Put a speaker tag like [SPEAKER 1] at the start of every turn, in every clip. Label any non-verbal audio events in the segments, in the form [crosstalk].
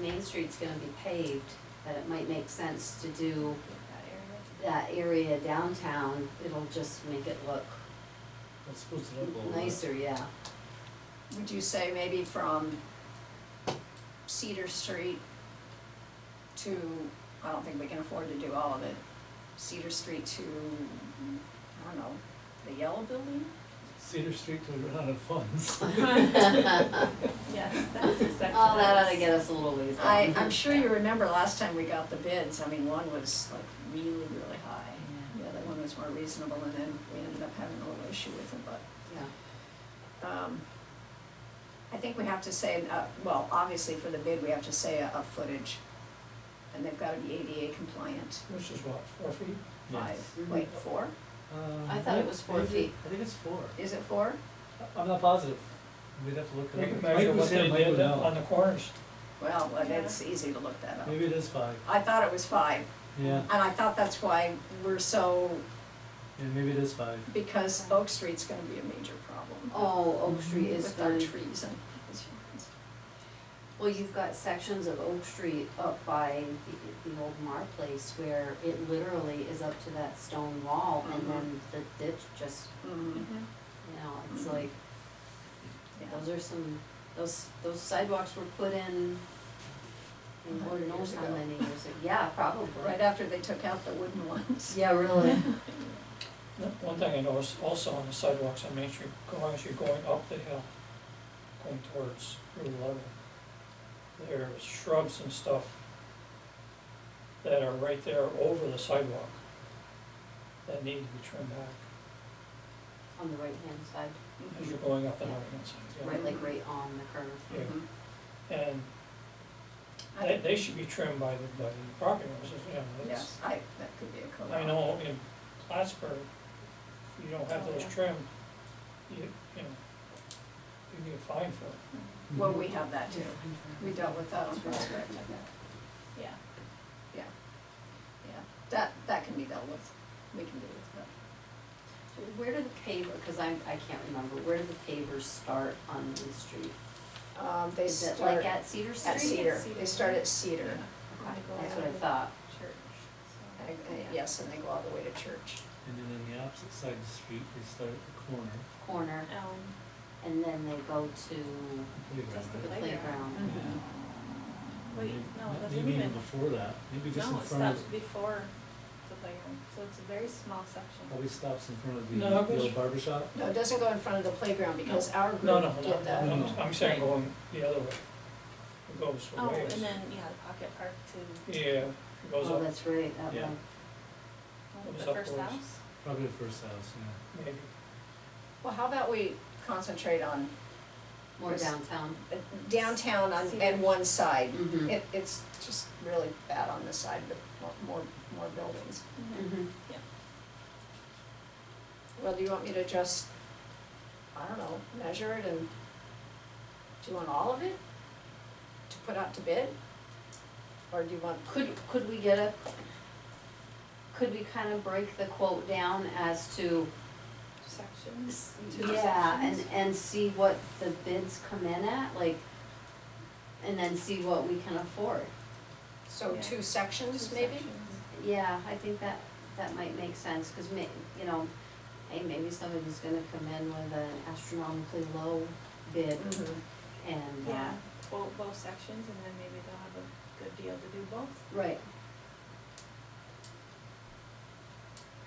[SPEAKER 1] Main Street's gonna be paved, that it might make sense to do that area downtown, it'll just make it look
[SPEAKER 2] That's supposed to look a little bit.
[SPEAKER 1] nicer, yeah.
[SPEAKER 3] Would you say maybe from Cedar Street to, I don't think we can afford to do all of it, Cedar Street to, I don't know, the yellow building?
[SPEAKER 2] Cedar Street to run out of
[SPEAKER 1] [laughs]
[SPEAKER 2] funds. [laughs]
[SPEAKER 4] Yes, that's exactly.
[SPEAKER 3] Oh,
[SPEAKER 1] All Oh, that ought to get us a little ways
[SPEAKER 3] I,
[SPEAKER 1] down.
[SPEAKER 3] I'm sure you remember last time we got the bids, I mean, one was like really, really high. The other one was more reasonable and then we ended up having a little issue with it, but
[SPEAKER 1] Yeah.
[SPEAKER 3] um, I think we have to say, uh, well, obviously for the bid, we have to say a, a footage. And they've gotta be ADA compliant,
[SPEAKER 5] Which is what, four feet?
[SPEAKER 3] five,
[SPEAKER 1] Mm-hmm.
[SPEAKER 3] wait, four,
[SPEAKER 1] I thought it was four feet.
[SPEAKER 2] Um, I think it's four.
[SPEAKER 3] is it four?
[SPEAKER 2] I- I'm not positive. We'd have to look
[SPEAKER 5] We
[SPEAKER 2] it
[SPEAKER 5] can
[SPEAKER 2] up.
[SPEAKER 5] measure
[SPEAKER 2] Mike was
[SPEAKER 5] what they
[SPEAKER 2] saying Mike
[SPEAKER 5] did
[SPEAKER 2] would
[SPEAKER 5] on the
[SPEAKER 2] know.
[SPEAKER 5] corners.
[SPEAKER 3] Well, but it's easy to look that up.
[SPEAKER 2] Maybe it is five,
[SPEAKER 3] I thought it was five,
[SPEAKER 2] yeah,
[SPEAKER 3] and I thought that's why we're so,
[SPEAKER 2] yeah, maybe it is five.
[SPEAKER 3] because Oak Street's gonna be a major problem
[SPEAKER 1] Oh, Oak Street is
[SPEAKER 3] Mhm. with our
[SPEAKER 1] gonna,
[SPEAKER 3] trees and.
[SPEAKER 1] well, you've got sections of Oak Street up by the, the old Mar place where it literally is up to that stone wall and
[SPEAKER 3] Mhm.
[SPEAKER 1] then the ditch just, Mm-hmm.
[SPEAKER 3] Mm,
[SPEAKER 1] you know, it's
[SPEAKER 3] Mhm.
[SPEAKER 1] like,
[SPEAKER 3] yeah.
[SPEAKER 1] those are some, those, those sidewalks were put in, in Lord knows
[SPEAKER 3] Years
[SPEAKER 1] how
[SPEAKER 3] ago.
[SPEAKER 1] many years ago. Yeah, probably.
[SPEAKER 3] Right after they took out the wooden ones.
[SPEAKER 1] Yeah, really.
[SPEAKER 5] One thing I noticed also on the sidewalks on Main Street, going, as you're going up the hill, going towards Route eleven, there's shrubs and stuff that are right there over the sidewalk that need to be trimmed back
[SPEAKER 1] On the right-hand side,
[SPEAKER 3] Mm-hmm.
[SPEAKER 5] as you're going up the
[SPEAKER 1] Yeah.
[SPEAKER 5] hill. side.
[SPEAKER 1] right, like right on the curve.
[SPEAKER 5] Yeah.
[SPEAKER 3] Mhm.
[SPEAKER 5] And
[SPEAKER 3] I
[SPEAKER 5] they,
[SPEAKER 3] think-
[SPEAKER 5] they should be trimmed by the, by the property owners, you know, that's-
[SPEAKER 3] Yes, I, that could be a code.
[SPEAKER 5] I know in Plattsburgh, you don't have
[SPEAKER 4] Oh,
[SPEAKER 5] those
[SPEAKER 4] yeah.
[SPEAKER 5] trimmed, you, you know, you get fined for it.
[SPEAKER 3] Well, we have that too. We dealt with that on Prospect.
[SPEAKER 4] Yeah.
[SPEAKER 3] Yeah, yeah. That, that can be dealt with. We can deal with that.
[SPEAKER 1] Where do the paver, because I, I can't remember, where do the pavers start on Main Street?
[SPEAKER 3] Um, they
[SPEAKER 1] Is it
[SPEAKER 3] start
[SPEAKER 1] like
[SPEAKER 3] at
[SPEAKER 1] at Cedar Street?
[SPEAKER 3] Cedar.
[SPEAKER 4] Cedar.
[SPEAKER 3] They start at Cedar.
[SPEAKER 1] Okay, That's what I thought.
[SPEAKER 4] Church.
[SPEAKER 3] And- and- Yes, and they go all the way to church.
[SPEAKER 2] And then on the opposite side of the street, they start at the corner,
[SPEAKER 1] Corner,
[SPEAKER 4] Elm.
[SPEAKER 1] and then they go to
[SPEAKER 2] playground,
[SPEAKER 4] Just
[SPEAKER 1] the
[SPEAKER 2] right?
[SPEAKER 1] playground.
[SPEAKER 2] Yeah.
[SPEAKER 4] Wait,
[SPEAKER 2] Maybe-
[SPEAKER 4] no, it doesn't
[SPEAKER 2] Maybe even
[SPEAKER 4] even-
[SPEAKER 2] before that, maybe just in
[SPEAKER 4] No, it
[SPEAKER 2] front
[SPEAKER 4] stops
[SPEAKER 2] of,
[SPEAKER 4] before the playground, so it's a very small section.
[SPEAKER 2] probably stops in front of the,
[SPEAKER 5] No,
[SPEAKER 2] the
[SPEAKER 5] it goes-
[SPEAKER 2] old barber shop.
[SPEAKER 3] No, it doesn't go in front of the playground because our
[SPEAKER 5] No, no,
[SPEAKER 3] group
[SPEAKER 5] no,
[SPEAKER 3] did that.
[SPEAKER 2] no,
[SPEAKER 5] I'm,
[SPEAKER 2] no.
[SPEAKER 5] I'm saying going the other way. It goes
[SPEAKER 4] Oh,
[SPEAKER 5] away.
[SPEAKER 4] and then, yeah, the pocket park to
[SPEAKER 5] Yeah, it goes
[SPEAKER 1] Oh,
[SPEAKER 5] up,
[SPEAKER 1] that's right, that
[SPEAKER 2] Yeah.
[SPEAKER 1] one.
[SPEAKER 4] oh,
[SPEAKER 5] Goes
[SPEAKER 4] the first
[SPEAKER 5] upwards.
[SPEAKER 4] house.
[SPEAKER 2] Probably the first house, yeah.
[SPEAKER 5] maybe,
[SPEAKER 3] Well, how about we concentrate on
[SPEAKER 1] More
[SPEAKER 3] Yes.
[SPEAKER 1] downtown.
[SPEAKER 3] downtown on,
[SPEAKER 4] Cedar.
[SPEAKER 3] and one side?
[SPEAKER 1] Mm-hmm.
[SPEAKER 3] It, it's just really bad on this side, but more, more, more buildings.
[SPEAKER 1] Mm-hmm.
[SPEAKER 3] Well, do you want me to just, I don't know, measure it and, do you want all of it to put out to bid? Or do you want,
[SPEAKER 1] Could, could we get a, could we kind of break the quote down as to,
[SPEAKER 4] Sections.
[SPEAKER 1] yeah, and, and see what the bids come in at, like, and then see what we can afford?
[SPEAKER 3] so
[SPEAKER 4] Yeah.
[SPEAKER 3] two sections
[SPEAKER 4] Two
[SPEAKER 3] maybe?
[SPEAKER 4] sections.
[SPEAKER 1] Yeah, I think that, that might make sense, cause may, you know, hey, maybe somebody's gonna come in with an astronomically low bid
[SPEAKER 3] Mhm.
[SPEAKER 1] and, uh,
[SPEAKER 4] Yeah, both, both sections, and then maybe they'll have a good deal to do both.
[SPEAKER 1] right,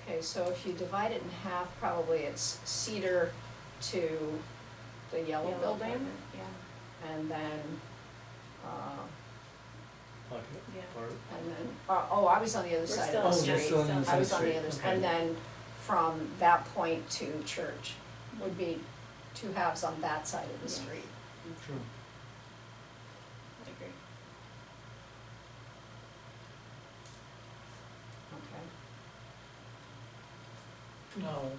[SPEAKER 3] Okay, so if you divide it in half, probably it's Cedar to the yellow building,
[SPEAKER 4] Yeah,
[SPEAKER 3] and then, uh,
[SPEAKER 2] Like,
[SPEAKER 4] yeah.
[SPEAKER 2] bar-
[SPEAKER 3] and then, oh, oh, I was on the other
[SPEAKER 4] We're
[SPEAKER 3] side
[SPEAKER 4] still
[SPEAKER 3] of the
[SPEAKER 2] Oh,
[SPEAKER 4] on
[SPEAKER 2] you're
[SPEAKER 3] street.
[SPEAKER 2] still on the
[SPEAKER 3] I
[SPEAKER 2] side
[SPEAKER 3] was on the
[SPEAKER 2] street,
[SPEAKER 3] other,
[SPEAKER 2] okay.
[SPEAKER 3] and then from that point to church would be two halves on that side of the
[SPEAKER 4] Yes.
[SPEAKER 3] street.
[SPEAKER 2] True.
[SPEAKER 4] I agree.
[SPEAKER 3] Okay.
[SPEAKER 5] no.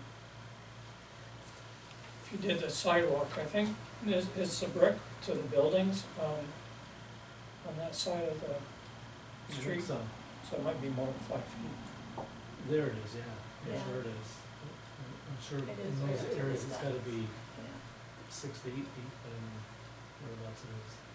[SPEAKER 5] If you did the sidewalk, I think, is, is the brick to the buildings, um, on that side of the
[SPEAKER 2] I think
[SPEAKER 5] street,
[SPEAKER 2] so.
[SPEAKER 5] so it might be more than five feet.
[SPEAKER 2] There it is, yeah,
[SPEAKER 4] Yeah.
[SPEAKER 2] I'm sure it is. I'm sure
[SPEAKER 4] It is
[SPEAKER 2] in
[SPEAKER 4] right
[SPEAKER 2] those
[SPEAKER 4] up to
[SPEAKER 2] areas
[SPEAKER 4] the
[SPEAKER 2] it's
[SPEAKER 4] side.
[SPEAKER 2] gotta be
[SPEAKER 4] Yeah.
[SPEAKER 2] six to eight feet, but I don't know whereabouts it is.